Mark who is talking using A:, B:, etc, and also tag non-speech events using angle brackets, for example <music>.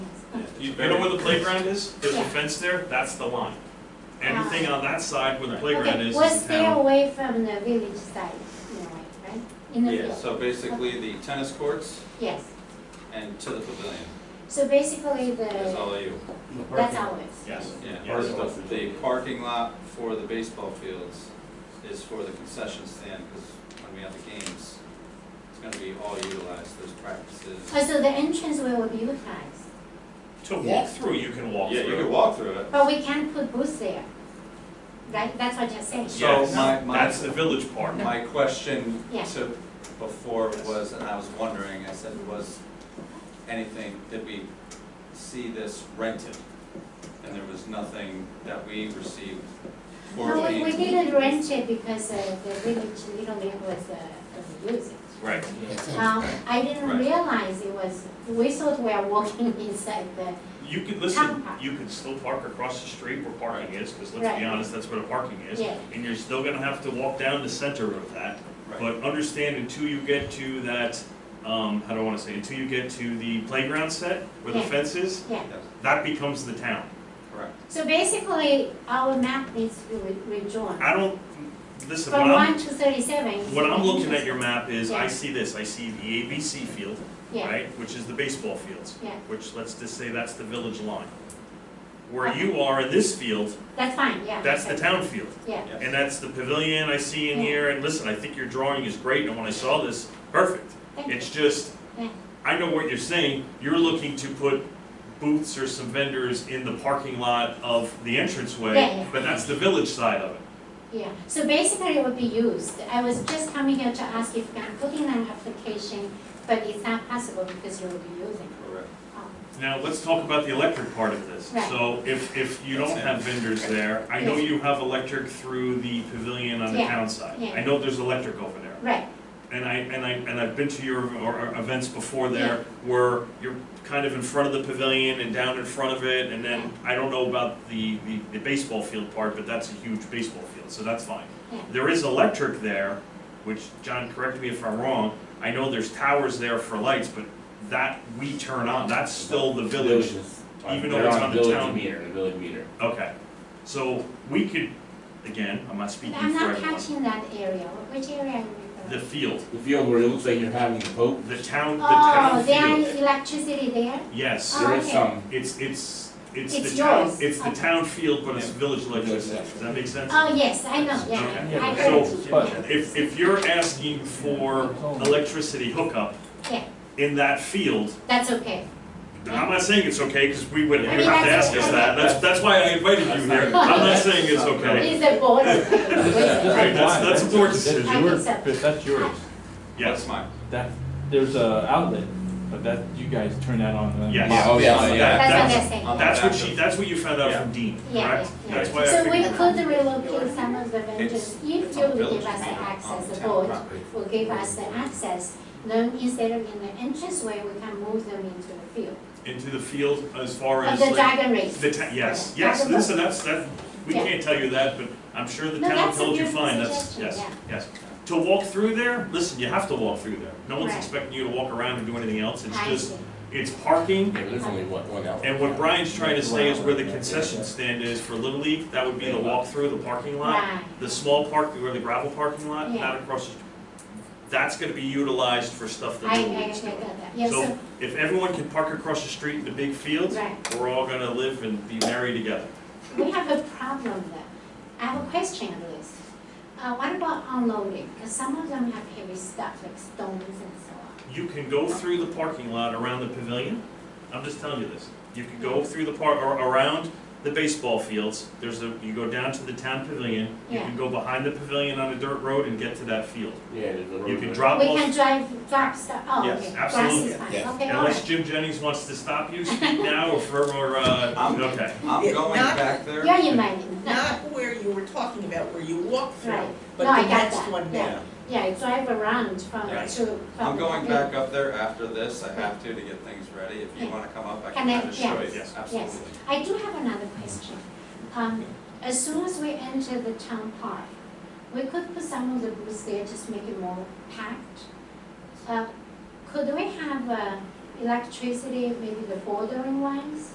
A: You, you know where the playground is? There's a fence there, that's the line. Anything on that side where the playground
B: Ah. Okay,
A: is,
B: we'll
A: is
B: stay
A: town.
B: away from the village side, in a way, right? In the
C: Yeah,
B: field,
C: so basically the tennis courts
B: yes.
C: and to the pavilion
B: So basically
C: is
B: the,
C: all you.
B: that's ours.
A: Yes.
C: Yeah,
A: Yes.
C: the, the parking lot for the baseball fields is for the concession stand, because when we have the games, it's gonna be all utilized, there's practices.
B: Oh, so the entrance way will be utilized,
A: To
D: Yeah.
A: walk through, you can walk
C: Yeah, you can
A: through.
C: walk through it.
B: but we can't put booths there. Right, that's what you're saying.
C: So
A: Yes,
C: my- my-
A: that's the village part.
C: My question
B: Yeah.
C: to, before was, and I was wondering, I said, was anything, did we see this rented? And there was nothing that we received for
B: No, we, we
C: being-
B: didn't rent it because uh, the village little league was, uh, was using.
A: Right.
B: Um, I didn't
C: Right.
B: realize it was, we thought we are walking <laughs> inside the,
A: You could, listen,
B: Town park.
A: you could still park across the street where parking is, because let's
B: Right.
A: be honest, that's where the parking is.
B: Yeah.
A: And you're still gonna have to walk down the center of that.
C: Right,
A: But understand until you get to that, um, how do I wanna say, until you get to the playground set where the
B: Yeah.
A: fence is,
B: yeah.
C: yes,
A: that becomes the town.
C: correct.
B: So basically, our map needs to be re- redrawn.
A: I don't, listen, what
B: From
A: I'm,
B: one to thirty-seven. is
A: What I'm looking at
B: entrance.
A: your map is, I
B: Yeah.
A: see this, I see the ABC field,
B: Yeah,
A: right, which is the baseball fields,
B: yeah,
A: which, let's just say that's the village line. Where you are in this field,
B: that's fine, yeah.
A: that's the
B: okay.
A: town field,
B: Yeah,
C: Yes.
A: and that's the pavilion I see in
B: Yeah.
A: here, and listen, I think your drawing is great, and when I saw this, perfect.
B: thank you.
A: It's just,
B: Yeah.
A: I know what you're saying, you're looking to put booths or some vendors in the parking lot of the
B: Yeah,
A: entranceway,
B: yeah.
A: but that's the village side of it.
B: Yeah, so basically it would be used. I was just coming here to ask if I'm putting an application, but it's not possible because you will be using.
C: Correct.
B: Um,
A: Now, let's talk about the electric part of this.
B: Right.
A: So if, if you
C: That's
A: don't
C: it.
A: have vendors there, I know
B: Yes.
A: you have electric through the pavilion on the
B: Yeah,
A: town side.
B: yeah.
A: I know there's electric over there.
B: Right,
A: And I, and I, and I've been to your, or, or events before there where you're kind of in front of the pavilion and down in front of it. And then, I don't know about the, the the baseball field part, but that's a huge baseball field, so that's fine.
B: Yeah.
A: There is electric there, which, John, correct me if I'm wrong, I know there's towers there for lights, but that we turn on, that's still the village
E: Villages.
A: even though
E: They're
A: it's on the
E: village
A: town-
E: meter, the village meter.
A: Okay, so we could, again, I'm not
B: but
A: speaking
B: I'm
A: for
B: not
A: everyone.
B: catching that area. Which area are you referring
A: The field,
E: The field where it looks like you're having a boat,
A: the town, the
B: Oh,
A: town
B: there
A: field.
B: is electricity there?
A: Yes,
B: Oh.
E: there is
B: okay.
E: some,
A: it's, it's, it's
B: It's
A: the town,
B: yours.
A: it's the
B: Okay.
A: town field, but it's
C: Yeah.
A: village electricity.
E: electricity.
A: Does that make sense?
B: Oh, yes, I know,
A: Okay.
B: yeah, I
A: So-
B: heard.
A: If, if you're asking for electricity hookup
B: Yeah.
A: in that field,
B: That's okay.
A: I'm not saying it's okay, because we wouldn't,
B: I
A: you'd
B: mean,
A: have to
B: that's-
A: ask us that. That's, that's why I invited you here. I'm not saying it's okay.
B: Is the
A: <laughs>
B: board okay?
A: Right, that's, that's a board
B: I
A: decision,
B: think
F: Yours,
B: so.
F: Chris, that's yours.
A: yes.
C: That's mine.
F: That, there's a outlet, but that, you guys turn that on. and-
A: Yes.
E: Yeah, oh, yeah,
A: That-
E: yeah.
B: That's what
A: that's-
B: they're saying.
A: That's what she, that's what you found out
C: Yeah.
A: from Dean,
B: Yeah,
A: correct?
B: yeah,
A: That's
C: yeah.
A: why I
B: So we
A: figured-
B: could relocate some of the vendors,
C: It's-
B: if you
C: it's on
B: will
C: village
B: give us the
C: property, on
B: access, the
C: town
B: board
C: property.
B: will give us the access, then instead of in the entrance way, we can move them into the field.
A: Into the field as far
B: Of
A: as
B: the
A: like,
B: dragon race.
A: the, ta- yes,
B: Yeah,
A: yes,
B: dragon
A: listen, that's, that, we
B: Yeah.
A: can't tell you that, but I'm sure the
B: No,
A: town
B: that's a
A: told you
B: good
A: fine, that's,
B: suggestion,
A: yes, yes. To walk through there, listen, you have to walk through there. No one's
B: Right.
A: expecting you to walk around and do anything else, it's
B: I
A: just,
B: see.
A: it's parking.
E: yeah, there's only one, one outlet.
A: And what Brian's trying to say is where the concession stand is for Little League, that would be the walk through the parking lot.
B: Right,
A: The small park, where the gravel parking lot,
B: Yeah.
A: not across the, that's gonna be utilized for stuff that
B: I, I,
A: Little
B: I
A: League's doing.
B: got that, yeah,
A: So
B: so,
A: if everyone can park across the street in the big field,
B: right.
A: we're all gonna live and be married together.
B: We have a problem there. I have a question on this. Uh, what about unloading? Because some of them have heavy stuff like stones and so on.
A: You can go through the parking lot around the pavilion, I'm just telling you this. You can go through the park, or around the baseball fields, there's a, you go down to the town pavilion, you
B: Yeah.
A: can go behind the pavilion on a dirt road and get to that field.
E: Yeah, there's a road.
A: You can
E: there.
A: drop
B: We
A: off,
B: can drive, drop stuff, oh,
A: Uh, Yes,
B: okay, grass
A: absolutely.
B: is fine,
E: Yeah.
B: okay, all
A: unless
B: right.
A: Jim Jennings wants to stop you,
B: <laughs>
A: speak now or forever, uh,
C: I'm-
A: okay.
C: I'm going
G: Not-
C: back there.
B: You're invited, no,
G: Not where you were talking about, where you walk
B: Right.
G: through,
B: No, I
G: but
B: got
G: the next
B: that.
G: one
B: Yeah.
G: down.
B: yeah, I drive around from,
A: Right.
B: to. from
C: I'm going
B: the-
C: back up there after this, I have to to get things ready, if you
B: Yeah.
C: wanna come up, I
B: Can
C: can
B: I-
C: kinda show
B: yes,
C: you,
A: yes.
C: absolutely.
B: I do have another question. Um, as soon as we enter the town park, we could put some of the booths there, just make it more packed. Uh, could we have, uh, electricity, maybe the bordering ones?